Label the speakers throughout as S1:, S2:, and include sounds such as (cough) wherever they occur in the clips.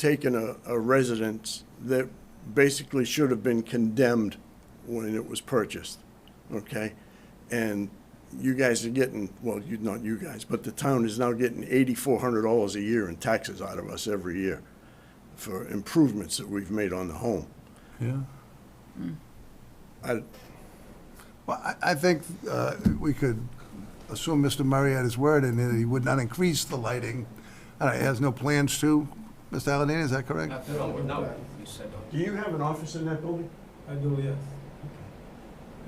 S1: taken a, a residence that basically should have been condemned when it was purchased, okay? And you guys are getting, well, you, not you guys, but the town is now getting eighty-four hundred dollars a year in taxes out of us every year for improvements that we've made on the home.
S2: Yeah.
S1: I,
S2: Well, I, I think uh, we could assume Mr. Murray at his word and that he would not increase the lighting. All right, he has no plans to, Mr. Allen, is that correct?
S3: No, no, you said
S1: Do you have an office in that building?
S3: I do, yes.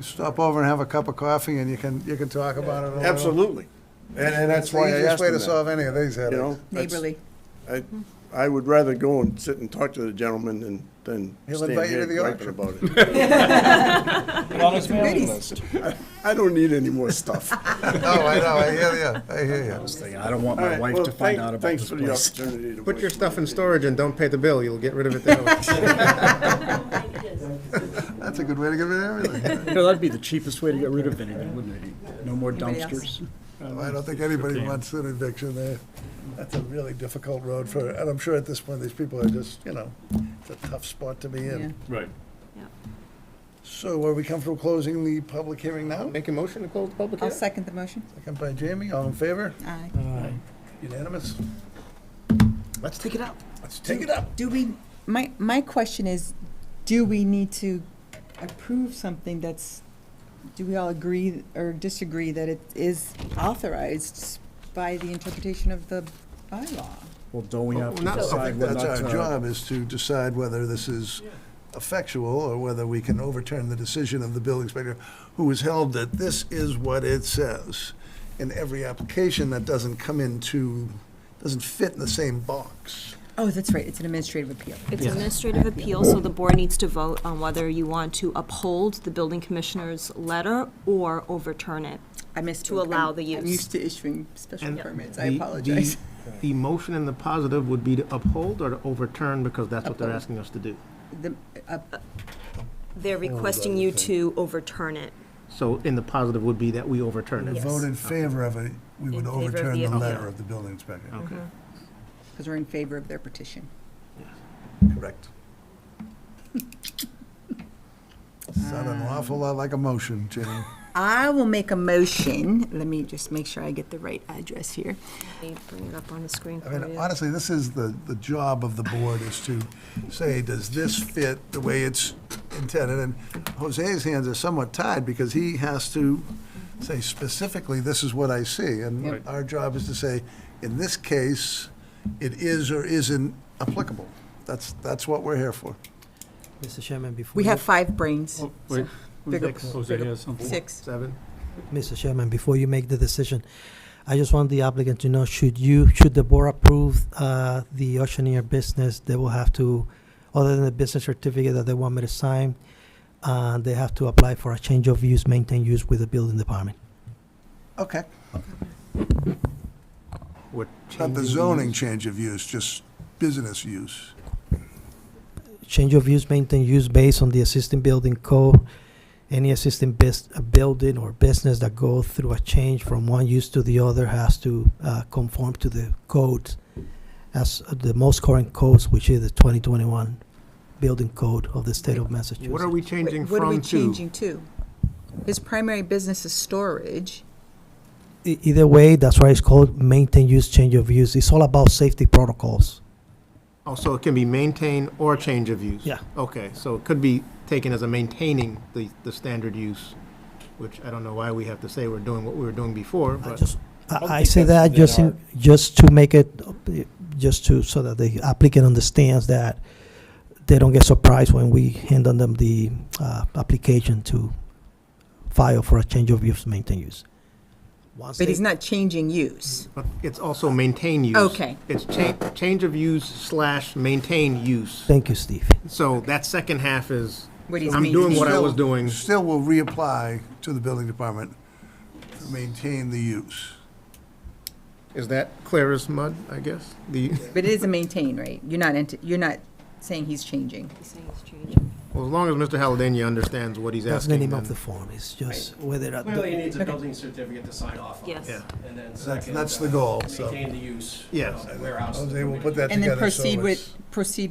S2: Stop over and have a cup of coffee and you can, you can talk about it a little.
S1: Absolutely. And, and that's
S2: It's the
S1: why I
S2: easiest
S1: asked
S2: way
S1: him
S2: to
S1: that,
S2: solve any of these
S1: you
S2: headaches.
S1: know? That's-
S4: Neighborly.
S1: I, I would rather go and sit and talk to the gentleman than, than
S2: He'll
S1: stand
S2: invite you
S1: here
S2: to the
S1: griping
S2: auction.
S1: about
S2: (laughs)
S1: it. (laughs) I don't need any more stuff.
S2: (laughs)
S1: (laughs)
S2: Oh, I know, I hear you, I hear you.
S5: thing. I don't want
S1: All
S5: my
S1: right,
S5: wife
S1: well,
S5: to find
S1: thank-
S5: out about
S1: thanks
S5: this
S1: for the
S5: place.
S1: opportunity to
S6: Put your
S1: voice
S6: stuff
S1: my
S6: in
S1: opinion.
S6: storage and don't pay the bill, you'll get rid of it that (laughs) way.
S2: That's a good way to get rid of everything.
S5: You know, that'd be the cheapest way to get rid of anything, wouldn't it? No more
S4: Anybody else?
S5: dumpsters.
S2: I don't think anybody wants an eviction there. That's a really difficult road for, and I'm sure at this point, these people are just, you know, it's a tough spot to be
S4: Yeah.
S2: in.
S7: Right.
S2: So are we comfortable closing the public hearing now?
S6: Make a motion to close the public
S4: I'll
S6: hearing?
S4: second the motion.
S2: Second by Jamie, all in favor?
S4: Aye.
S2: Unanimous?
S5: Let's take it out.
S2: Let's take it up.
S4: Do we, my, my question is, do we need to approve something that's, do we all agree or disagree that it is authorized by the interpretation of the bylaw?
S5: Well, don't we have to
S6: Well, not-
S5: decide whether
S2: That's
S5: that's
S2: our
S5: a
S2: job, is to decide whether this is effectual or whether we can overturn the decision of the building inspector, who has held that this is what it says. In every application that doesn't come into, doesn't fit in the same box.
S4: Oh, that's right, it's an administrative appeal.
S8: It's administrative appeal, so the board needs to vote on whether you want to uphold the building commissioner's letter or overturn it.
S4: I missed.
S8: To
S4: it. I'm-
S8: allow the
S4: I'm
S8: use.
S4: used to issuing special
S6: And
S4: permits,
S6: the-
S4: I
S6: the-
S4: apologize. (laughs)
S6: The motion in the positive would be to uphold or to overturn, because that's what they're
S4: Uphold.
S6: asking us to do.
S4: The- uh,
S8: They're requesting you to overturn it.
S6: So in the positive would be that we overturn it.
S8: Yes.
S2: Vote in favor of it, we
S8: In
S2: would
S8: favor of
S2: overturn
S8: the
S2: the
S8: appeal.
S2: letter of the building inspector.
S6: Okay.
S4: Because we're in favor of their petition.
S2: Correct. Sounded an awful lot like a motion, Jenny.
S4: I will make a motion, let me just make sure I get the right address here.
S8: Let me bring it up on the screen
S2: I
S8: for
S2: mean,
S8: you.
S2: honestly, this is the, the job of the board is to say, does this fit the way it's intended? And Jose's hands are somewhat tied because he has to say specifically, this is what I see. And
S7: Right.
S2: our job is to say, in this case, it is or isn't applicable. That's, that's what we're here for.
S9: Mr. Chairman, before
S4: We
S9: you-
S4: have five brains,
S7: Wait,
S4: bigger-
S5: Oh,
S7: Jose has something.
S4: six.
S6: Seven?
S9: Mr. Chairman, before you make the decision, I just want the applicant to know, should you, should the board approve uh, the auctioneer business, they will have to, other than the business certificate that they want me to sign, uh, they have to apply for a change of use, maintain use with the building department.
S2: Okay.
S6: We're
S2: Not the
S6: changing
S2: zoning
S6: use.
S2: change of use, just business use.
S9: Change of use, maintain use based on the existing building code. Any existing bus- uh building or business that go through a change from one use to the other has to uh, conform to the code as the most current codes, which is the 2021 building code of the state of Massachusetts.
S6: What are we
S4: Wait,
S6: changing
S4: What are we
S6: from to?
S4: changing to? His primary business is storage.
S9: E- Either way, that's why it's called maintain use, change of use. It's all about safety protocols.
S6: Also, Oh, it can be maintain or change of use?
S9: Yeah.
S6: Okay, so it could be taken as a maintaining the, the standard use, which I don't know why we have to say we're doing what we were doing before,
S9: I
S6: but.
S9: just,
S7: don't
S9: I I
S7: think
S9: say
S7: that's
S9: that just,
S7: in
S9: in- just to make it, uh, just to, so that the applicant understands that they don't get surprised when we hand on them the uh, application to file for a change of use, maintain use. Once
S4: But
S9: they-
S4: he's not changing use.
S6: But it's also maintain use.
S4: Okay.
S6: It's cha- change of use slash maintain use.
S9: Thank you, Steve.
S6: So that second half is,
S4: What he's
S6: I'm doing what I was
S2: Still-
S6: doing.
S2: Still will reapply to the building department to maintain the use.
S6: Is that clear as mud, I guess? The,
S4: But it is a maintain, right? You're not, ent- you're not
S10: saying he's changing.
S8: He's saying it's changing.
S6: Well, as long as Mr. Halladany understands what he's
S11: That's
S6: asking,
S11: the name of
S6: then-
S11: the form, it's just whether. at the-
S9: Clearly, he needs a building certificate to sign off on.
S8: Yes.
S6: Yeah.
S9: And then
S2: That's-
S9: second.
S2: that's the
S9: uh,
S2: goal, so.
S9: Maintain the use.
S6: Yes.
S9: uh, Warehouse.
S2: Jose will put that
S4: And then
S2: together, so
S4: proceed
S2: it's-
S4: with, proceed